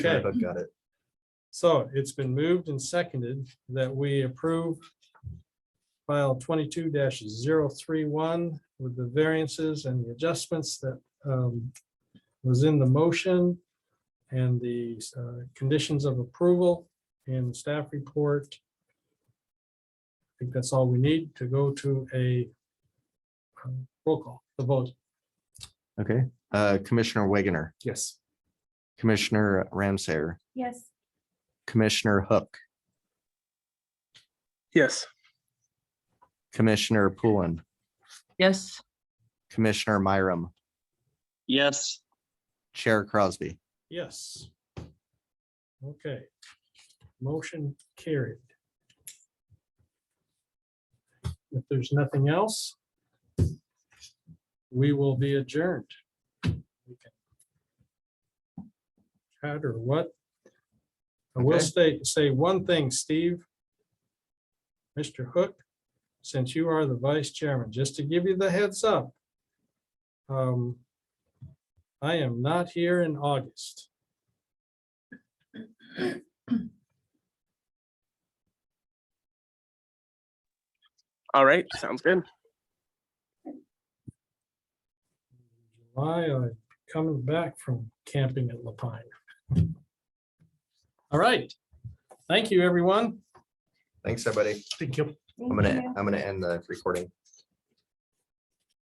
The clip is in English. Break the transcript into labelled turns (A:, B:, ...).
A: sure if
B: Okay.
A: I've got it.
B: So it's been moved and seconded that we approve file twenty-two 31 with the variances and the adjustments that um, was in the motion and the uh, conditions of approval and staff report. I think that's all we need to go to a um, roll call, the vote.
A: Okay, uh, Commissioner Wagoner,
B: Yes.
A: Commissioner Ramsayer,
C: Yes.
A: Commissioner Hook,
D: Yes.
A: Commissioner Poulin,
E: yes.
A: Commissioner Myram,
D: Yes.
A: Chair Crosby.
B: Yes. Okay. Motion carried. If there's nothing else, we will be adjourned. We can Chat or what? I will
A: Okay.
B: state, say one thing, Steve. Mr. Hook, since you are the vice chairman, just to give you the heads up. Um, I am not here in August.
D: All right. Sounds good.
B: July, I'm coming back from camping at Lapine. All right. Thank you, everyone.
A: Thanks, everybody.
B: Thank you.
A: I'm gonna, I'm gonna end the recording.